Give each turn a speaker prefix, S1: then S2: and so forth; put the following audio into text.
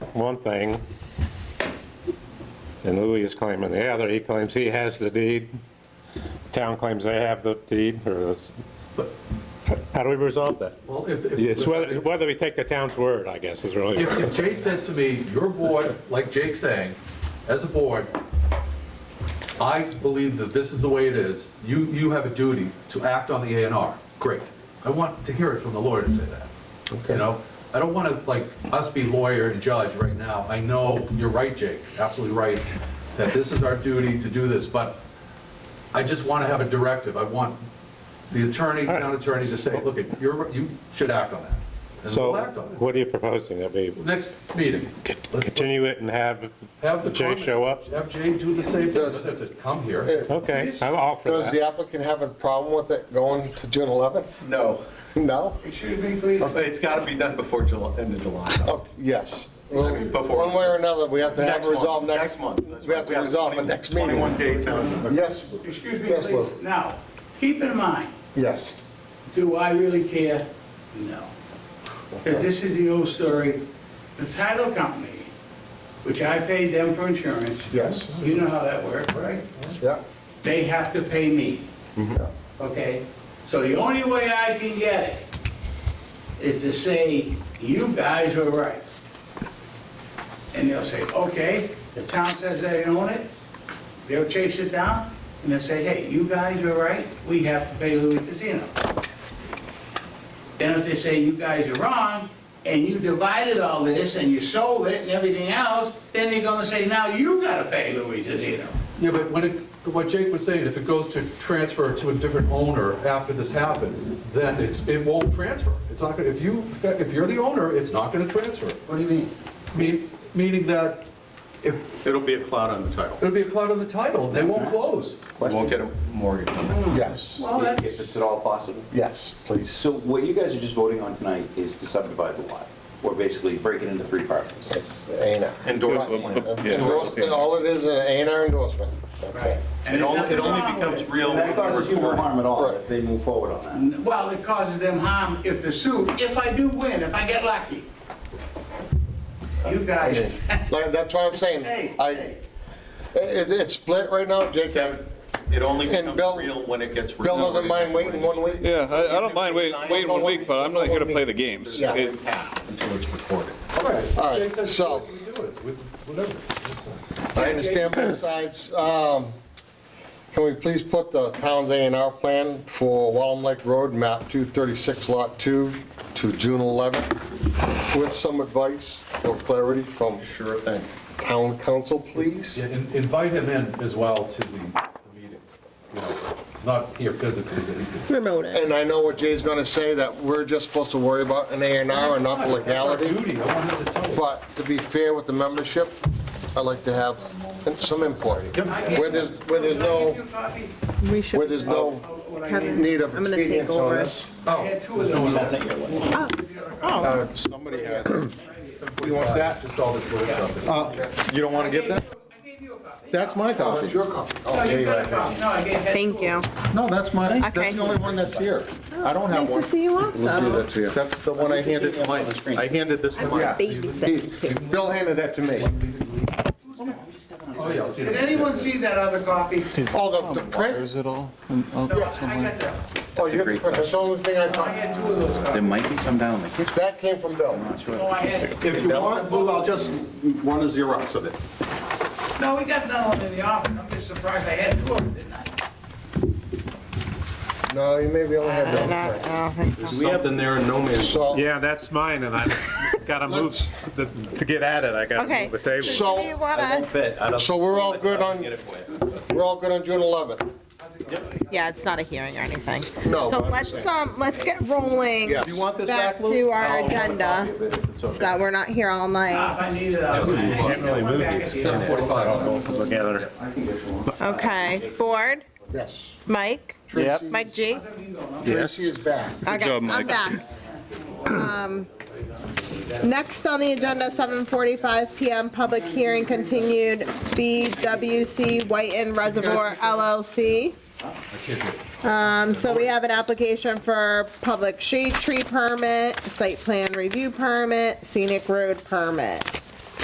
S1: one thing, and Louis is claiming the other, he claims he has the deed, town claims they have the deed, or, how do we resolve that?
S2: Well, if, if.
S1: Yes, whether, whether we take the town's word, I guess, is really,
S2: If, if Jake says to me, your board, like Jake's saying, as a board, I believe that this is the way it is, you, you have a duty to act on the A and R, great. I want to hear it from the lawyer to say that, you know? I don't want to, like, us be lawyer and judge right now, I know, you're right, Jake, absolutely right, that this is our duty to do this, but I just want to have a directive, I want the attorney, town attorney to say, look, you're, you should act on that. And
S1: so,
S2: we'll act on it
S1: what are you proposing, that we
S2: next meeting. Let's
S1: continue it and have
S2: have the
S1: Jay
S2: comment.
S1: show up?
S2: Have Jay do the same thing,
S3: Does-
S2: doesn't have to come here.
S1: Okay, I'm all for
S3: Does
S1: that.
S3: the applicant have a problem with it going to June 11th?
S4: No,
S3: No?
S4: it should be clean, but it's got to be done before July, end of July.
S3: Oh, yes.
S4: I mean, before-
S3: One way or another, we have to have
S4: Next
S3: it
S4: month,
S3: resolved next.
S4: Next month. That's
S3: We
S4: right.
S3: have to resolve it
S4: 20
S3: next meeting.
S4: 21 day time.
S3: Yes,
S5: Excuse me,
S3: Yes,
S5: please.
S3: Lou.
S5: Now, keep in mind,
S3: yes.
S5: do I really care? No. Because this is the old story. The title company, which I paid them for insurance.
S3: Yes.
S5: You know how that works, right?
S3: Yeah.
S5: They have to pay me,
S3: Yeah.
S5: okay? So the only way I can get it is to say, you guys are right. And they'll say, okay, the town says they own it, they'll chase it down, and they'll say, hey, you guys are right, we have to pay Louis Tiziano. Then if they say, you guys are wrong, and you divided all this, and you sold it and everything else, then they're gonna say, now you gotta pay Louis Tiziano.
S2: Yeah, but when it, what Jake was saying, if it goes to transfer to a different owner after this happens, then it's, it won't transfer. It's not gonna, if you, if you're the owner, it's not gonna transfer.
S5: What do you mean?
S2: Me- Meaning that if,
S4: It'll be a cloud on the title.
S2: it'll be a cloud on the title, they won't close.
S4: You won't get a mortgage.
S3: Yes,
S5: Well, that's.
S6: if it's at all possible.
S3: yes, please.
S6: So what you guys are just voting on tonight is to subdivide the lot, or basically break it into three parcels.
S3: It's A&R.
S4: Endorse the plan.
S3: Endorsement, all it is, is an A&R endorsement. That's it.
S4: It only, it only becomes real
S6: And
S4: when
S6: that
S4: we
S6: causes you no
S4: record.
S6: harm at all
S3: Right.
S6: if they move forward on that.
S5: Well, it causes them harm if the suit, if I do win, if I get lucky. You guys,
S3: Like, that's why I'm saying,
S5: hey,
S3: I,
S5: hey,
S3: it, it's split right now, Jake.
S4: It only
S3: And
S4: becomes
S3: Bill-
S4: real when it gets.
S3: Bill doesn't mind waiting one week?
S7: Yeah, I, I don't mind wait- waiting one week, but I'm not here to play the games.
S3: Yeah.
S7: It-
S4: Until it's recorded.
S2: All right.
S3: All right,
S2: Jake says,
S3: so-
S2: "You do it," with- whatever. That's fine.
S3: I understand both sides. Um, Can we please put the town's A and R plan for Wallem Lake Road, map 236, lot 2, to June 11th, with some advice or clarity from
S4: Sure thing.
S3: town council, please?
S2: Yeah, in- Invite him in as well to the the meeting, you know, not here physically, but he could
S8: remote it.
S3: And I know what Jay's gonna say, that we're just supposed to worry about an A and R and not
S2: That's
S3: the
S2: our
S3: legality,
S2: duty, I wanted to tell you.
S3: but to be fair with the membership, I'd like to have some input. Where there's, where there's
S5: Can I give
S3: no,
S5: you a copy
S8: We should.
S3: where there's no
S5: of what I
S8: Have-
S5: gave you?
S3: need of
S8: I'm gonna take
S3: expedience on
S8: over.
S3: this.
S2: Oh,
S5: I had two of
S2: there's no
S5: those.
S2: one else.
S3: Uh,
S8: Oh,
S4: Somebody has,
S3: You want that?
S2: Just all this little stuff.
S4: you don't want
S5: I
S4: to
S5: gave
S4: give
S5: you-
S4: that?
S5: I gave you a copy.
S4: That's my
S3: Oh, that's
S4: copy.
S3: your copy. Oh,
S5: No,
S3: there
S5: you
S3: you
S5: got
S3: are.
S5: a copy, no, I gave, had two.
S8: thank you.
S4: No, that's my, that's
S8: Okay.
S4: the only one that's here. I don't have
S8: Nice to
S4: one.
S8: see you also.
S4: That's the one I handed to Mike. I handed this to
S8: I'm a
S4: Mike.
S8: baby secretary.
S3: Bill handed that to me.
S2: Oh, yeah, I'll see
S5: Did
S2: that.
S5: anyone see that other copy?
S3: Oh, the, the print?
S7: Is it all?
S5: No, I I got that,
S3: Oh, you got the print, that's the only thing I
S5: I
S3: thought.
S5: had two of those copies.
S6: might be some down in the kitchen.
S3: That came from Bill.
S5: No, I had,
S4: If you want, Lou, I'll just want a Xerox of it.
S5: no, we got that one in the office, I'm just surprised I had two of them, didn't I?
S3: No, you maybe only had
S8: Not-
S3: one print.
S8: I don't think so.
S4: There's something there in no man's.
S3: So,
S1: Yeah, that's mine, and I've got to move,
S3: Let's-
S1: the- to get at it, I got to
S8: Okay.
S1: move the table.
S3: So-
S8: Do you wanna-
S3: so we're all good on, we're all good on June 11th?
S8: Yeah, it's not a hearing or anything.
S3: No,
S8: So
S3: but I'm
S8: let's, um, let's get rolling.
S3: Yes.
S4: You want this
S8: Back
S4: back, Lou?
S8: to our agenda, so that we're not here all night.
S5: Ah, If I needed it, I would.
S1: Can't really move these
S2: Seven forty-five.
S1: together.
S8: Okay, board,
S3: Yes.
S8: Mike,
S3: Tracy-
S8: Mike G?
S3: Tracy is back.
S8: Okay,
S7: job,
S8: I'm
S7: Mike.
S8: back. Um, Next on the agenda, 7:45 PM, public hearing continued, BWC Whiten Reservoir LLC. Um, So we have an application for public shade tree permit, site plan review permit, scenic road permit.